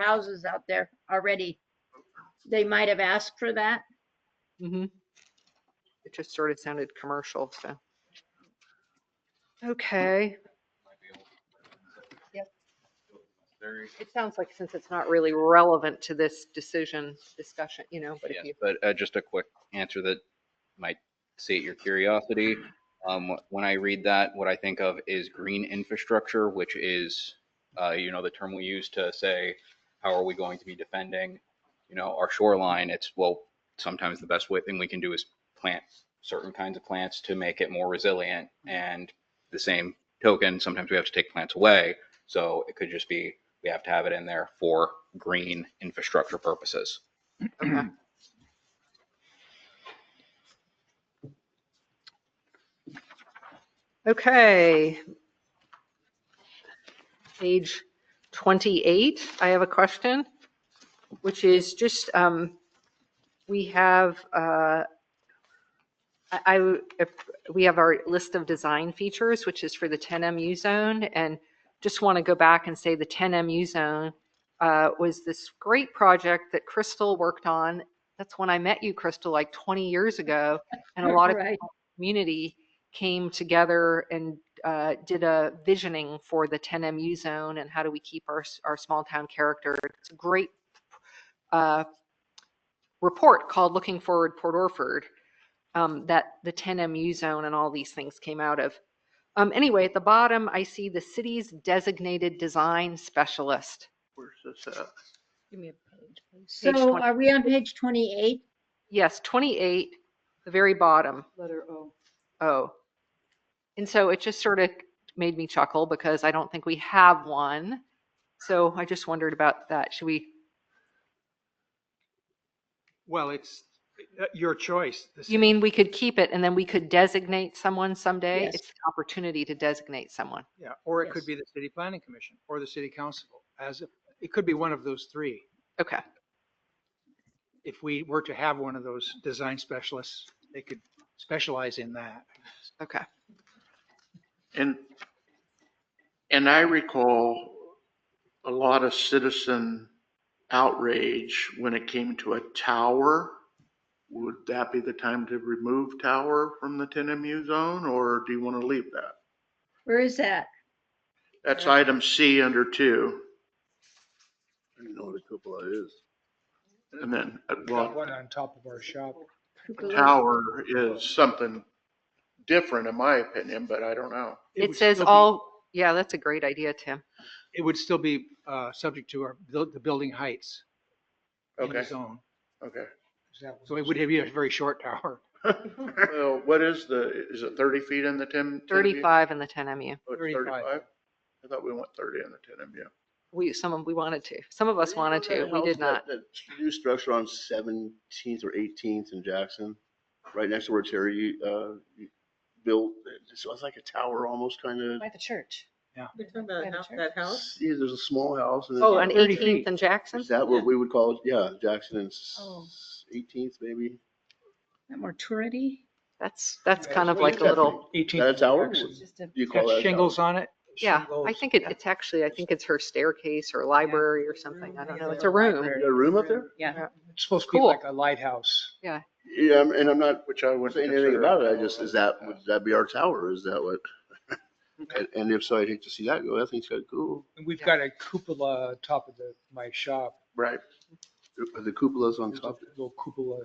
houses out there already. They might have asked for that. Mm-hmm. It just sort of sounded commercial, so. Okay, It sounds like since it's not really relevant to this decision, discussion, you know, but if Yes, you, But uh, just a quick answer that might sate your curiosity. Um, When I read that, what I think of is green infrastructure, which is, uh, you know, the term we use to say, how are we going to be defending, you know, our shoreline? It's, well, sometimes the best way, thing we can do is plant certain kinds of plants to make it more resilient. And the same token, sometimes we have to take plants away. So it could just be, we have to have it in there for green infrastructure purposes. okay. Okay. Page 28, I have a question, which is just, um, we have, uh, I, I w- if- we have our list of design features, which is for the 10MU zone, and just want to go back and say the 10MU zone uh, was this great project that Crystal worked on. That's when I met you, Crystal, like 20 years ago, and a lot of Right. community came together and uh, did a visioning for the 10MU zone and how do we keep our, s- our small town character. It's a great uh, report called Looking Forward Port Orford um, that the 10MU zone and all these things came out of. Um, Anyway, at the bottom, I see the city's designated design specialist. Where's this at? Give me a page. Page So 20. are we on page 28? Yes, 28, the very bottom. letter O. Oh. And so it just sort of made me chuckle because I don't think we have one. So I just wondered about that. Should we, Well, it's uh, your choice. This you is- mean we could keep it and then we could designate someone someday? Yes. It's an opportunity to designate someone. Yeah, or it could Yes. be the city planning commission or the city council as, a- it could be one of those three. Okay. If we were to have one of those design specialists, they could specialize in that. Okay. And, and I recall a lot of citizen outrage when it came to a tower. Would that be the time to remove tower from the 10 MU zone, or do you want to leave that? Where is that? That's item C under two. I don't know what a cupola is. And then, uh, Got well, one on top of our shop. Cupola? tower is something different in my opinion, but I don't know. would It says still be- all, yeah, that's a great idea, Tim. It would still be uh, subject to our, buil- the building heights in the Okay, zone. okay. So it would be a very short tower. Well, what is the, is it 30 feet in the 10? 35 in the 10MU. Oh, it's 35. 35? I thought we went 30 in the 10 MU. We, some of, we wanted to. Some of us wanted to. We did not. That that new structure on 17th or 18th in Jackson, right next to where Terry uh, built, so it's like a tower almost kind of. By the church. Yeah. We're talking about By the house- church? that house? Yeah, there's a small house. and Oh, it's- on 30 18th feet. and Jackson? Is that Yeah. what we would call it? Yeah, Jackson and s- Oh. 18th maybe. That Morturity? That's, that's kind of what like a is that? little, 18 That's ours? Jackson. Just a- Do you call Got that? a shingles on it. yeah, I shingles. think it- it's actually, I think it's her staircase or library or something. I don't know. It's a room. tower? You got a room up there? Yeah. It's supposed to be Cool. like a lighthouse. Yeah, I'm- and I'm not Which I wouldn't saying anything consider about a it. I just, is that, would that be our tower? Is that what? And- And if so, I'd hate to see that go. I think it's kind of cool. And we've Yeah. got a cupola on top of the, my shop. Right. The- The cupola's on There's a top. Little cupola.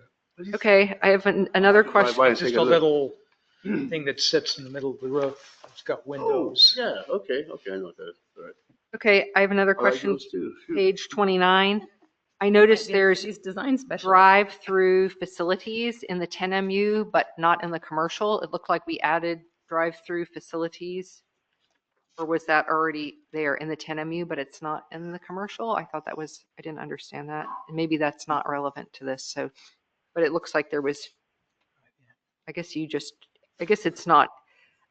Okay, I have an- another Drive by question. and Just take a look. little thing that sits in the middle of the roof. It's got Oh, windows. yeah, okay, okay, I know what that. is. All right. Okay, I have another I like question, those too. Shoot. page 29. I noticed These- there's These design special. drive-through facilities in the 10MU, but not in the commercial. It looked like we added drive-through facilities. Or was that already there in the 10MU, but it's not in the commercial? I thought that was, I didn't understand that. And maybe that's not relevant to this, so, but it looks like there was, I guess you just, I guess it's not,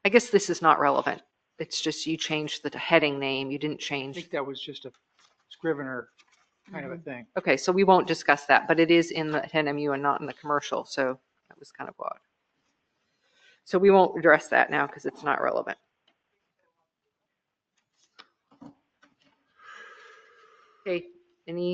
I guess this is not relevant. It's just you changed the heading name, you didn't I change. think that was just a Scrivener kind of a thing. Okay, so we won't discuss that, but it is in the 10MU and not in the commercial, so that was kind of odd. So we won't address that now because it's not relevant. Okay, Any